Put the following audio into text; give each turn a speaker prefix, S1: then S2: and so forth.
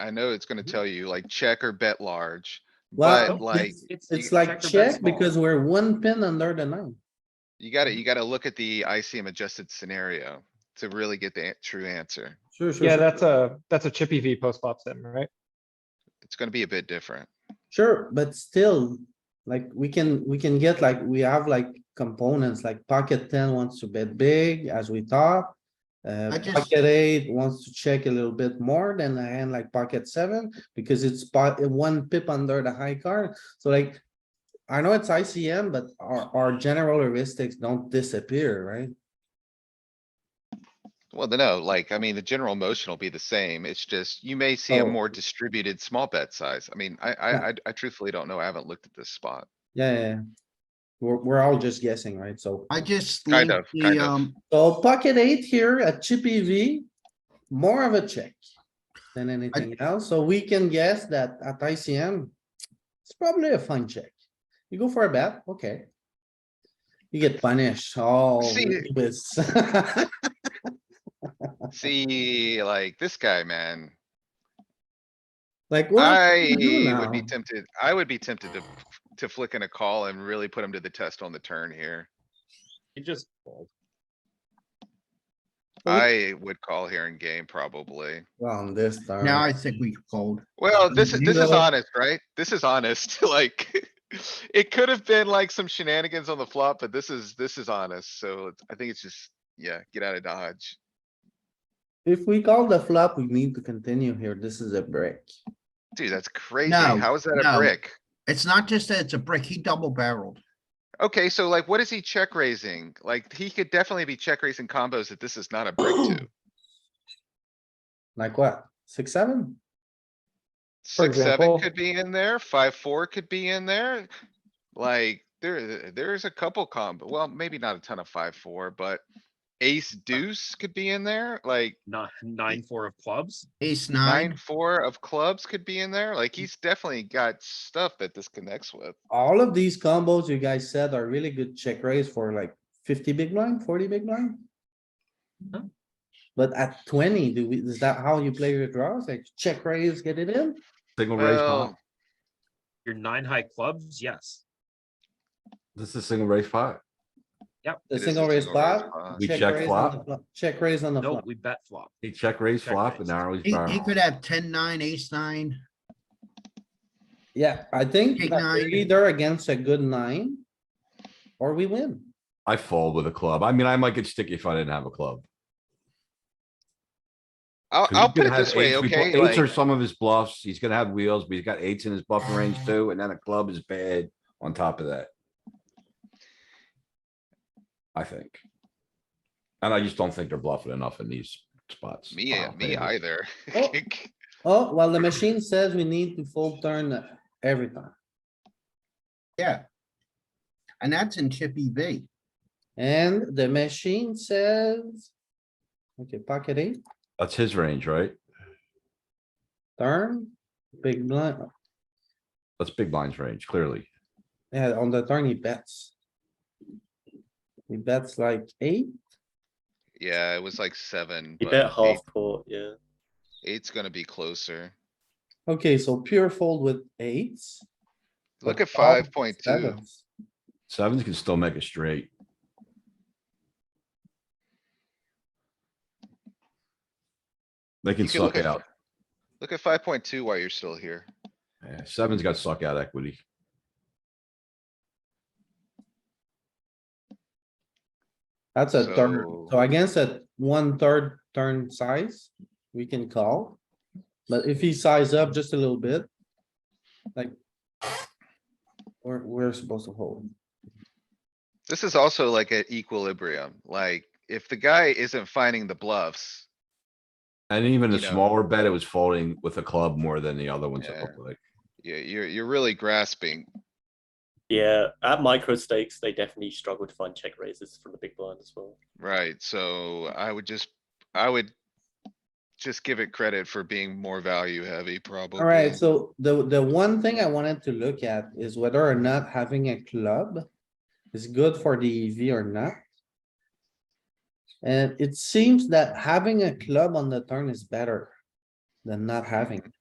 S1: I know it's
S2: Mm-hmm.
S1: gonna tell you like check or bet large,
S2: Well,
S1: but like,
S2: it's-
S3: It's
S2: It's
S3: you
S2: like
S3: check or bet
S2: check
S3: small.
S2: because we're one pin under the nine.
S1: you gotta,
S2: Mm-hmm.
S1: you gotta look at the ICM adjusted scenario to really get the an- true answer.
S2: Sure, sure.
S4: Yeah,
S2: sure.
S4: that's a, that's a chippy V post flop sim, right?
S1: It's gonna be a bit different.
S2: Sure, but still, like, we can, we can get like, we have like components, like pocket ten wants to bet big as we thought. Uh,
S5: I just-
S2: pocket eight wants to check a little bit more than a hand like pocket seven, because it's pot, one pip under the high card, so like. I know it's ICM, but our, our general heuristics don't disappear, right?
S1: Well, then, no, like, I mean, the general motion will be the same. It's just, you may see a
S2: Oh.
S1: more distributed small bet size. I mean, I, I, I- I truthfully don't know. I haven't looked at this spot.
S2: Yeah, yeah, yeah. We're, we're all just guessing, right? So.
S5: I just.
S1: Kind
S5: leave
S1: of, kind
S5: the,
S1: of.
S5: um,
S2: So pocket eight here at chippy V, more of a check than anything else, so we can guess that at ICM. It's probably a fine check. You go for a bet, okay. You get punished, oh.
S1: See-
S2: look at this.
S1: See, like, this guy, man,
S2: Like, what? are
S1: I
S2: we gonna do
S1: would be
S2: now?
S1: tempted, I would be tempted to, to flick in a call and really put him to the test on the turn here.
S4: You just.
S2: Well, we-
S1: I would call here in game probably.
S2: On this turn.
S5: Now I think we fold.
S1: Well, this is, this is
S2: No.
S1: honest, right? This is honest, like, it could have been like some shenanigans on the flop, but this is, this is honest, so it's- I think it's just, yeah, get out of dodge.
S2: If we call the flop, we need to continue here, this is a break.
S1: Dude, that's crazy.
S5: No,
S1: How is that a
S5: no.
S1: brick?
S5: It's not just that it's a brick, he double barreled.
S1: Okay, so like, what is he check raising? Like, he could definitely be check raising combos that this is not a brick to.
S2: Like what, six, seven?
S4: For
S1: Six, seven
S4: example-
S1: could be in there, five, four could be in there. Like, there, there's a couple combo, well, maybe not a ton of five, four, but ace deuce could be in there, like
S3: Nine, nine, four of clubs.
S5: Ace
S1: nine,
S5: nine,
S1: four of clubs could be in there.
S6: Mm.
S1: Like, he's definitely got stuff that this connects with.
S2: All of these combos you guys said are really good check raise for like fifty big blind, forty big blind.
S3: Mhm.
S2: But at twenty, do we, is that how you play your draws? Like check raise, get it in?
S6: Single raise five.
S1: Well,
S3: Your nine high clubs, yes.
S6: This is single raise five.
S1: it
S2: The
S1: is a
S2: single raise pot?
S1: pot.
S6: We check
S2: raise on
S6: flop.
S2: the flop- Check raise on the
S3: No,
S2: flop.
S3: we bet flop.
S6: He check raise
S3: Check
S6: flop
S3: raise.
S6: and now he's
S5: he, he
S6: barreling.
S5: could have ten, nine, ace nine.
S2: Yeah, I think
S5: Big
S2: that we're
S5: nine.
S2: either against a good nine. Or we win.
S6: I fold with a club. I mean, I might get sticky if I didn't have a club.
S1: I'll,
S6: 'Cause
S1: I'll
S6: he's
S1: put
S6: gonna
S1: it
S6: have
S1: this way,
S6: eights. We put
S1: okay?
S6: Eights
S1: like-
S6: are some of his bluffs. He's gonna have wheels, but he's got eights in his buffer range too, and then a club is bad on top of that. I think. And I just don't think they're bluffing enough in these spots.
S1: Me,
S6: Wow,
S1: me
S6: baby.
S1: either.
S2: Oh. Oh, well, the machine says we need to fold turn every time.
S5: Yeah. And that's in Chippy V.
S2: And the machine says. Okay, pocket eight.
S6: That's his range, right?
S2: Turn, big blind,
S6: That's big blind's range, clearly.
S2: yeah, on the turn he bets. He bets like eight,
S1: Yeah, it was like seven,
S7: You
S1: but
S7: bet
S1: eight-
S7: half court, yeah.
S1: eight's gonna be closer.
S2: okay, so pure fold with eights.
S1: Look
S2: but
S1: at
S2: call with
S1: five point two.
S2: sevens.
S6: Sevens can still make a straight. They can
S1: You can look
S6: suck
S1: at-
S6: out.
S1: Look at five point two while you're still here.
S6: Yeah, Seven's got suck out equity.
S2: That's a third,
S1: So-
S2: so against a one third turn size, we can call. But if he size up just a little bit. Like. We're, we're supposed to hold.
S1: This is also like an equilibrium, like if the guy isn't finding the bluffs,
S6: And even a
S1: You know.
S6: smaller bet, it was folding with a club more than the other ones. it
S1: Yeah.
S6: looked like.
S1: you, you're, you're really grasping.
S7: Yeah, at micro stakes, they definitely struggle to find check raises from the big blind as well.
S1: Right, so I would just, I would just give it credit for being more value heavy probably.
S2: Alright, so the, the one thing I wanted to look at is whether or not having a club is good for the EV or not. And it seems that having a club on the turn is better than not having. it.